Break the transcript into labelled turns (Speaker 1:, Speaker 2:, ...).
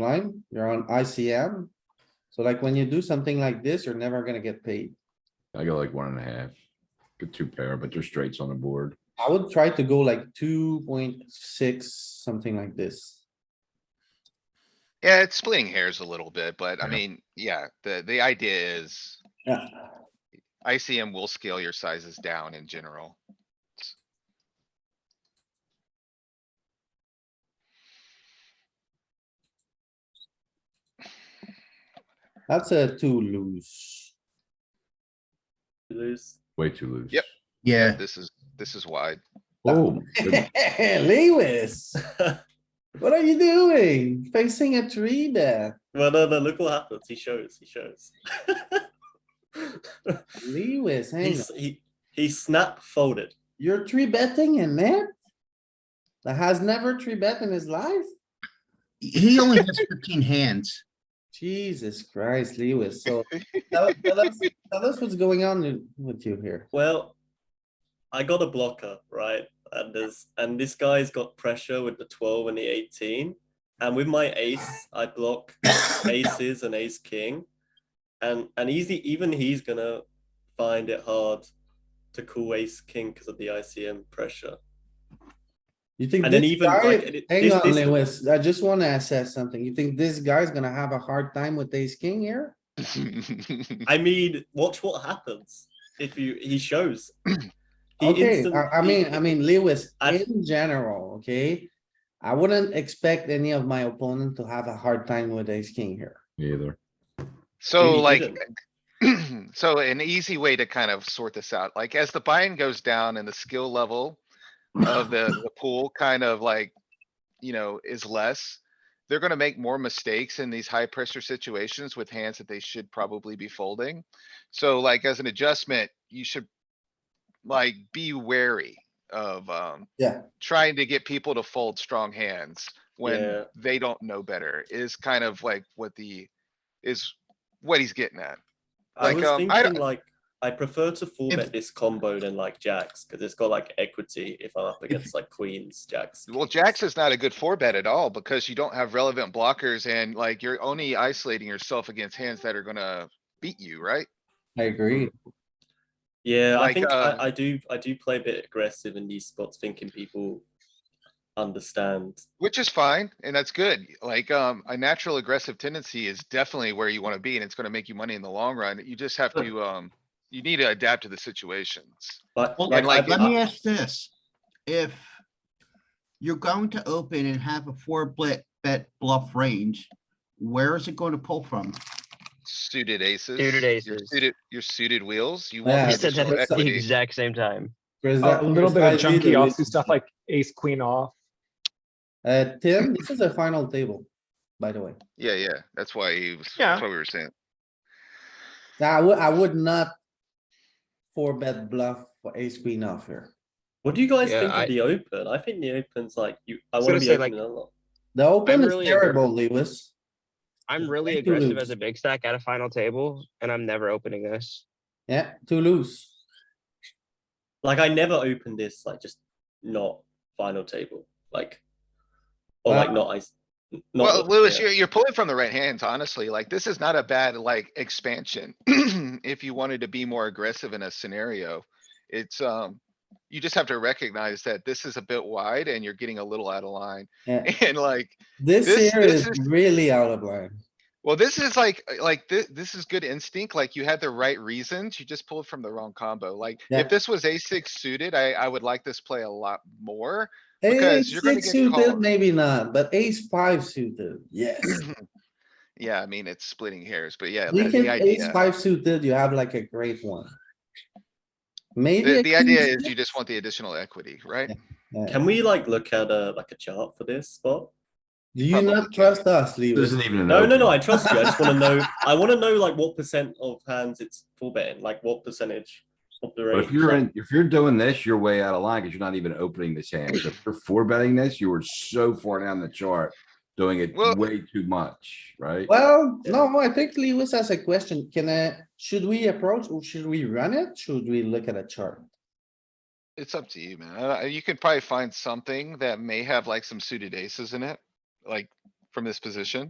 Speaker 1: line, you're on ICM. So like when you do something like this, you're never gonna get paid.
Speaker 2: I go like one and a half. Good two pair, but they're straights on the board.
Speaker 1: I would try to go like two point six, something like this.
Speaker 3: Yeah, it's splitting hairs a little bit, but I
Speaker 2: Yeah.
Speaker 3: mean, yeah, the, the idea is
Speaker 1: Yeah,
Speaker 3: ICM will scale your sizes down in general.
Speaker 1: that's a two loose.
Speaker 4: Lose.
Speaker 2: Way too loose.
Speaker 3: Yep.
Speaker 5: Yeah,
Speaker 3: This is, this is wide.
Speaker 2: Oh,
Speaker 1: Lewis, what are you doing? Facing a tree there,
Speaker 4: Well, no, no, look what happens. He shows, he shows.
Speaker 1: Lewis, hang on,
Speaker 4: He's, he, he snap folded.
Speaker 1: you're three betting in there? That has never three bet in his life?
Speaker 5: he only has fifteen hands.
Speaker 1: Jesus Christ, Lewis, so tell tell us, tell us what's going on with you here.
Speaker 4: Well, I got a blocker, right? And there's and this guy's got pressure with the 12 and the 18. And with my ace, I block aces and ace king. And and easy even he's gonna find it hard to call ace king because of the ICM pressure.
Speaker 1: You think
Speaker 4: And then
Speaker 1: this
Speaker 4: even, like,
Speaker 1: guy,
Speaker 4: it-
Speaker 1: hang
Speaker 4: this-
Speaker 1: on,
Speaker 4: this-
Speaker 1: Lewis, I just wanna assess something. You think this guy's gonna have a hard time with ace king here?
Speaker 4: I mean, watch what happens if you he shows. He
Speaker 1: Okay,
Speaker 4: instant-
Speaker 1: I, I mean, I mean, Lewis,
Speaker 4: I-
Speaker 1: in general, okay? I wouldn't expect any of my opponent to have a hard time with ace king here.
Speaker 2: me either.
Speaker 3: So
Speaker 4: he
Speaker 3: like,
Speaker 4: didn't.
Speaker 3: so an easy way to kind of sort this out, like as the buy-in goes down and the skill level of the, the pool kind of like, you know, is less, they're gonna make more mistakes in these high pressure situations with hands that they should probably be folding. So like as an adjustment, you should like be wary of, um,
Speaker 1: Yeah.
Speaker 3: trying to get people to fold strong hands
Speaker 4: Yeah.
Speaker 3: when they don't know better is kind of like what the, is what he's getting at.
Speaker 4: I
Speaker 3: Like,
Speaker 4: was
Speaker 3: um, I don't-
Speaker 4: thinking like I prefer to full
Speaker 3: If-
Speaker 4: bet this combo than like jacks because it's got like equity if I'm up against like queens, jacks.
Speaker 3: Well,
Speaker 4: kings.
Speaker 3: jacks is not a good four bet at all because you don't have relevant blockers and like you're only isolating yourself against hands that are gonna beat you, right?
Speaker 1: I agree.
Speaker 4: Mm. Yeah,
Speaker 3: like,
Speaker 4: I think
Speaker 3: uh,
Speaker 4: I, I do. I do play a bit aggressive in these spots, thinking people understand.
Speaker 3: Which is fine and that's good. Like, um, a natural aggressive tendency is definitely where you wanna be and it's gonna make you money in the long run. You just have to, um, you need to adapt to the situations.
Speaker 4: But
Speaker 5: Well,
Speaker 4: like, uh,
Speaker 3: like,
Speaker 4: I,
Speaker 5: Let me ask this, if you're going to open and have a four bet, bet bluff range, where is it going to pull from?
Speaker 3: Suited aces.
Speaker 6: Suited
Speaker 3: your
Speaker 6: aces.
Speaker 3: Suited, your suited wheels. You
Speaker 1: Yeah,
Speaker 3: want
Speaker 6: We
Speaker 1: it's
Speaker 6: said that
Speaker 3: additional
Speaker 6: at the
Speaker 3: equity.
Speaker 6: exact same time.
Speaker 7: A
Speaker 1: Oh,
Speaker 7: little bit of
Speaker 1: Precisely
Speaker 7: junky
Speaker 1: the
Speaker 7: offsuit
Speaker 1: reason.
Speaker 7: stuff like ace queen off.
Speaker 1: Uh, Tim, this is a final table, by the way.
Speaker 3: Yeah, yeah, that's why he was,
Speaker 6: Yeah.
Speaker 3: that's what we were saying.
Speaker 1: Now, I would, I would not four bet bluff for ace queen off here.
Speaker 4: what do you guys
Speaker 8: Yeah,
Speaker 4: think
Speaker 8: I-
Speaker 4: of the open? I think the open's like you. I
Speaker 8: was
Speaker 4: want
Speaker 8: gonna
Speaker 4: to be
Speaker 8: say,
Speaker 4: open
Speaker 8: like-
Speaker 4: a lot.
Speaker 1: The open is
Speaker 6: really
Speaker 1: terrible, Lewis.
Speaker 6: I'm really
Speaker 1: Thank you,
Speaker 6: aggressive
Speaker 1: Luke.
Speaker 6: as a big stack at a final table, and I'm never opening this.
Speaker 1: Yeah, too loose.
Speaker 4: Like I never opened this. Like just not final table. Like or
Speaker 1: Well-
Speaker 4: like not ice.
Speaker 3: Uh,
Speaker 4: Not
Speaker 3: Well,
Speaker 4: what-
Speaker 3: Lewis,
Speaker 4: yeah.
Speaker 3: you're, you're pulling from the right hands, honestly. Like, this is not a bad, like, expansion. If you wanted to be more aggressive in a scenario, it's, um, you just have to recognize that this is a bit wide and you're getting a little out of line.
Speaker 1: Yeah.
Speaker 3: And like,
Speaker 1: This
Speaker 3: This-
Speaker 1: here
Speaker 3: this
Speaker 1: is really out of line.
Speaker 3: well, this is like, like, this, this is good instinct. Like, you had the right reasons. You just pulled from the wrong combo. Like,
Speaker 1: Yeah.
Speaker 3: if this was a six suited, I, I would like this play a lot more.
Speaker 1: Ace
Speaker 3: Because you're gonna
Speaker 1: six
Speaker 3: get
Speaker 1: suited,
Speaker 3: called.
Speaker 1: maybe not, but ace five suited, yes.
Speaker 3: Yeah, I mean, it's splitting hairs, but yeah,
Speaker 1: You
Speaker 3: the
Speaker 1: can
Speaker 3: the
Speaker 1: ace
Speaker 3: idea,
Speaker 1: five suited, you have like a great one. Maybe.
Speaker 3: the,
Speaker 1: a
Speaker 3: the idea
Speaker 1: king
Speaker 3: is you just
Speaker 1: six?
Speaker 3: want the additional equity, right?
Speaker 1: Yeah.
Speaker 4: Can we like look at a like a chart for this spot?
Speaker 1: Do you not
Speaker 3: Probably.
Speaker 1: trust us,
Speaker 2: This
Speaker 1: Lewis?
Speaker 2: isn't even an
Speaker 4: No, no, no. I
Speaker 2: open.
Speaker 4: trust you. I just want to know. I want to know like what percent of hands it's full betting. Like what percentage of the
Speaker 2: But
Speaker 4: range.
Speaker 2: if you're
Speaker 4: like-
Speaker 2: in, if you're doing this, you're way out of line because you're not even opening this hand. So if you're four betting this, you were so far down the chart, doing it
Speaker 3: Well-
Speaker 2: way too much, right?
Speaker 1: Well, no, I think Lewis has a question. Can I, should we approach, or should we run it? Should we look at a chart?
Speaker 3: It's up to you, man. Uh, you could probably find something that may have like some suited aces in it, like from this position.